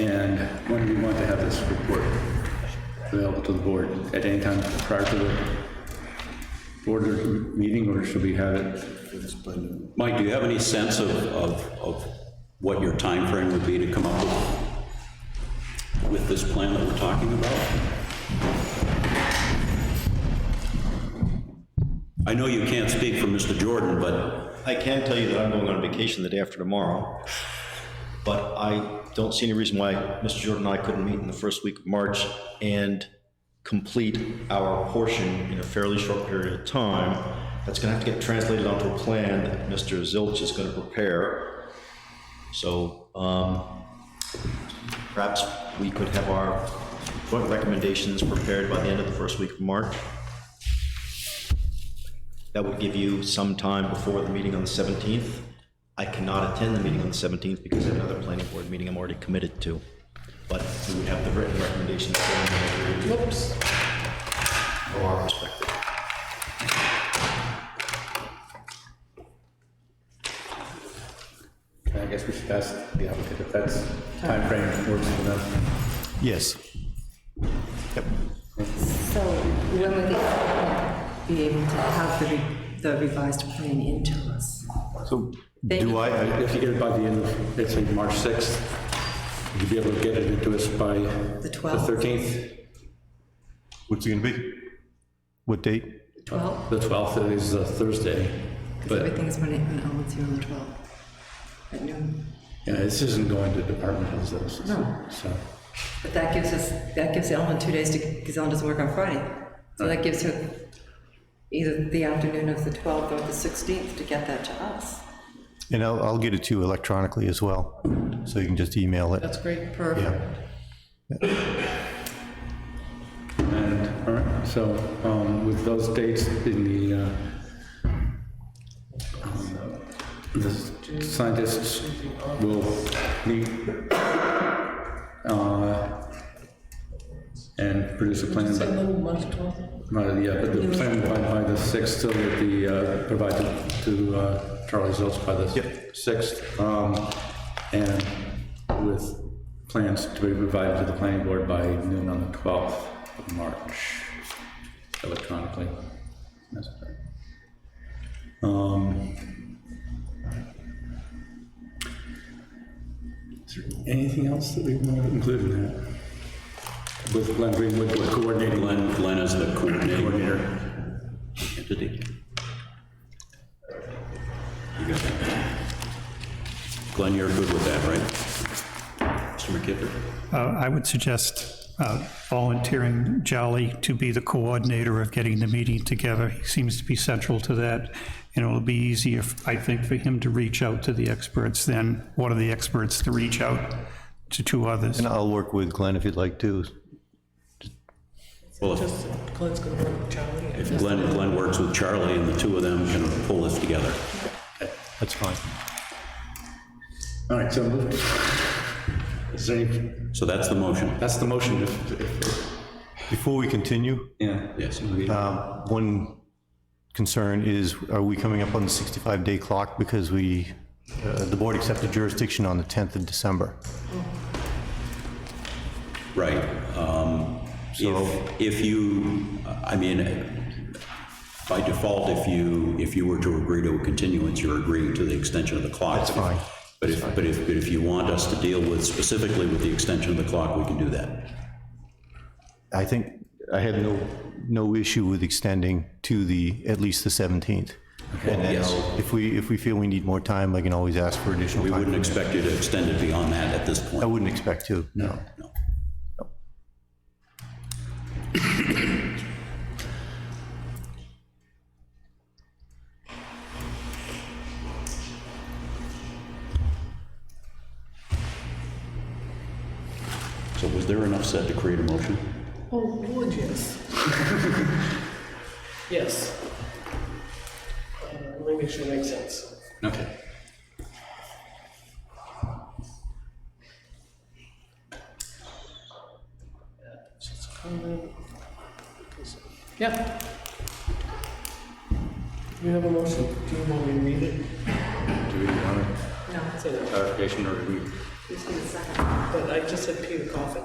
this report available to the board at any time prior to the board or meeting, or should we have it? Mike, do you have any sense of, of, of what your time frame would be to come up with, with this plan that we're talking about? I know you can't speak for Mr. Jordan, but I can tell you that I'm going on vacation the day after tomorrow, but I don't see any reason why Mr. Jordan and I couldn't meet in the first week of March and complete our portion in a fairly short period of time. That's gonna have to get translated onto a plan that Mr. Zilch is gonna prepare. So, um, perhaps we could have our joint recommendations prepared by the end of the first week of March. That would give you some time before the meeting on the 17th. I cannot attend the meeting on the 17th because I have another planning board meeting I'm already committed to. But we would have the written recommendations for them. Whoops. From our perspective. I guess we should ask the applicant if that's timeframe works for them. Yes. So when would they be able to have the re- the revised plan into us? So Thank you. do I, If you get it by the end of, let's say, March 6th, you'd be able to get it into us by The the 12th? 13th? What's it gonna be? What date? 12? The 12th is a Thursday, Because but, everything's when it, when it holds here on the 12th at noon. you know, this isn't going to department heads, though, so- No. so. But that gives us, that gives Ellen two days to, because Ellen doesn't work on Friday. So that gives her either the afternoon of the 12th or the 16th to get that to us. And I'll, I'll get it to you electronically as well, so you can just email it. great. Yeah. Perfect. And, all right, so um, with those dates in the, uh, um, the scientists will meet uh, and produce a plan. by- Not- Yeah, but the plan by, by the 6th, so that the, uh, provided to uh, Charlie Zilch by the 6th. um, And with plans to be provided to the planning board by noon on the 12th of March electronically. That's right. Um, Is there anything else that we want to include in that? With Glenn Greenwood coordinating Glenn, Glenn is the coordinator entity. You got that? Glenn, you're good with that, right? Mr. McKippin? Uh, I would suggest uh, volunteering Jolly to be the coordinator of getting the meeting together. He seems to be central to that, and it'll be easier, I think, for him to reach out to the experts than one of the experts to reach out to two others. And I'll work with Glenn if you'd like to. Well, if if Glenn, Glenn works with Charlie and the two of them can pull this together. That's fine. All right, so moved. Is there any, So that's the motion. that's the motion, if, if, Before we continue, yeah. Yes. um, one concern is, are we coming up on the 65-day clock? Because we, uh, the board accepted jurisdiction on the 10th of December. Right. Um, So- If, if you, I mean, by default, if you, if you were to agree to a continuance, you're agreeing to the extension of the clock. That's fine. But if, but if, but if you want us to deal with specifically with the extension of the clock, we can do that. I think I have no, no issue with extending to the, at least the 17th. And then yes. I'll- if we, if we feel we need more time, I can always ask for additional We time. wouldn't expect you to extend it beyond that at this I point. wouldn't expect to, no. No. So was there enough said to create a motion? Oh, Lord, yes. yes. Uh, let me make sure it makes sense. Okay. Yeah. We have a motion. Do you want me to read it? Do we want No, Say that. clarification or we? it's the second. But I just said Peter Coffin.